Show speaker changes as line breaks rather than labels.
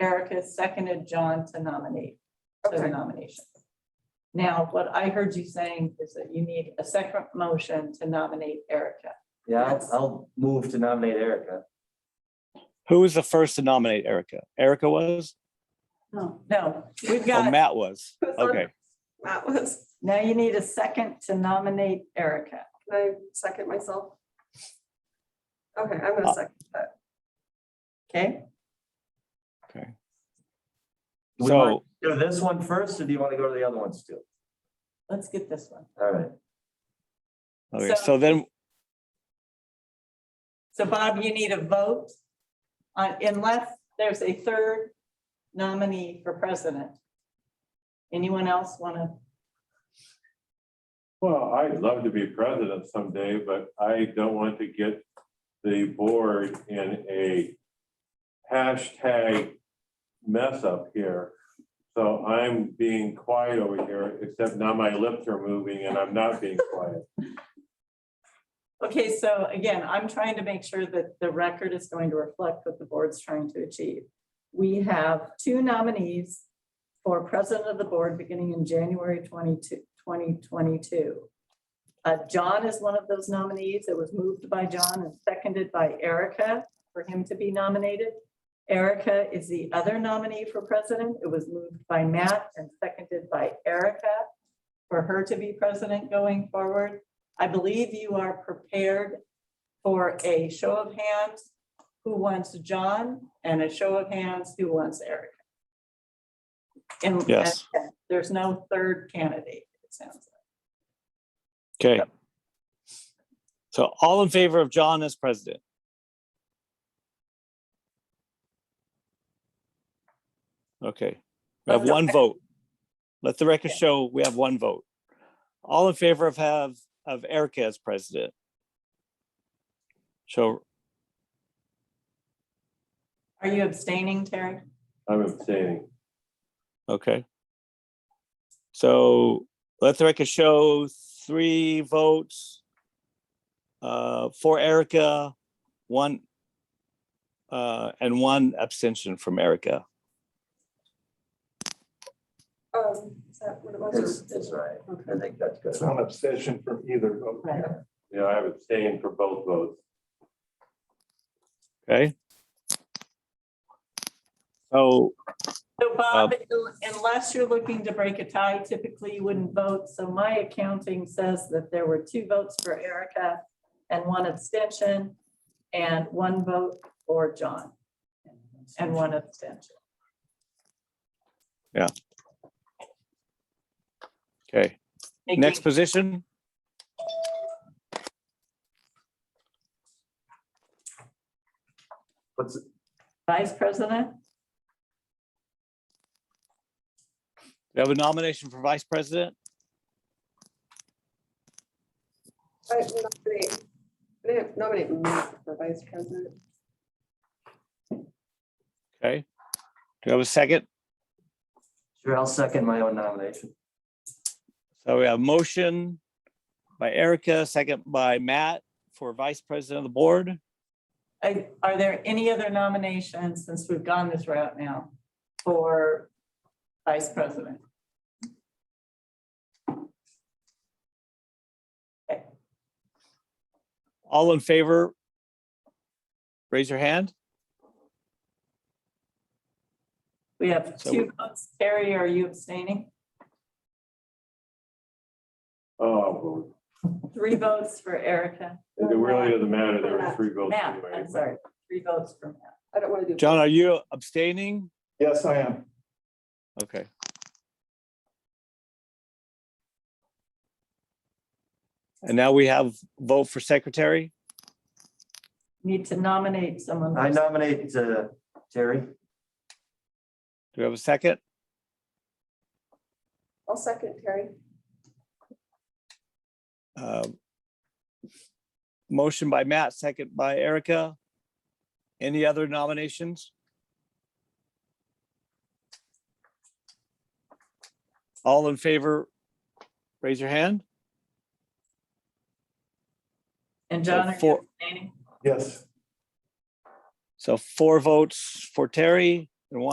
Erica seconded John to nominate, to the
Okay.
nomination. Now, what I heard you saying is that you need a second motion to nominate Erica.
Yeah, I'll-
Yes.
I'll move to nominate Erica.
Who was the first to nominate Erica? Erica was?
No, we've
Oh,
got,
Matt was. Okay,
That was,
now you need a second to nominate Erica.
can I second myself? Okay, I'm gonna second that.
Okay,
Do we
so,
want to Do this one first, or do you want to go to the other ones too?
let's get this one.
All right,
okay, so then,
So Bob, you need a vote on, unless there's a third nominee for president. Anyone else want to?
Well, I'd love to be president someday, but I don't want to get the board in a hashtag mess up here. So I'm being quiet over here, except now my lips are moving and I'm not being quiet.
Okay, so again, I'm trying to make sure that the record is going to reflect what the board's trying to achieve. We have two nominees for president of the board beginning in January 22, 2022. Uh, John is one of those nominees. It was moved by John and seconded by Erica for him to be nominated. Erica is the other nominee for president. It was moved by Matt and seconded by Erica for her to be president going forward. I believe you are prepared for a show of hands, who wants John, and a show of hands, who wants Erica. And
Yes.
and there's no third candidate, it sounds like.
okay. So all in favor of John as president? Okay, we have one vote. Let the record show we have one vote. All in favor of have, of Erica as president? Show,
Are you abstaining, Terry?
I'm abstaining.
Okay. So let the record show three votes. Uh, for Erica, one. Uh, and one abstention from Erica.
Um, is that what it
it's,
was?
it's all right.
Okay.
I think that's good.
not an obsession from either vote.
You know, I've abstained for both votes.
Okay. So,
So Bob, unless you're looking to break a tie, typically you wouldn't vote. So my accounting says that there were two votes for Erica and one abstention and one vote for John and one abstention.
okay,
Making-
next position.
What's,
Vice President,
We have a nomination for vice president.
I nominate- I Nominate Matt for vice president.
Okay. Do we have a second?
sure, I'll second my own nomination.
So we have motion by Erica, second by Matt for vice president of the board.
I- are there any other nominations, since we've gone this route now, for Vice President?
All in favor? Raise your hand.
We have
So
two votes. Terry, are you abstaining?
Oh,
Three votes for Erica.
it really doesn't matter. There were three votes
Matt,
anyway.
I'm sorry, three votes for Matt.
I don't want to do.
John, are you abstaining?
Yes, I am.
Okay. And now we have vote for secretary.
Need to nominate someone.
I nominate uh, Terry.
Do we have a second?
I'll second Terry.
Um, Motion by Matt, second by Erica. Any other nominations? All in favor? Raise your hand.
And John, are you
Four.
abstaining?
Yes.
So four votes for Terry and one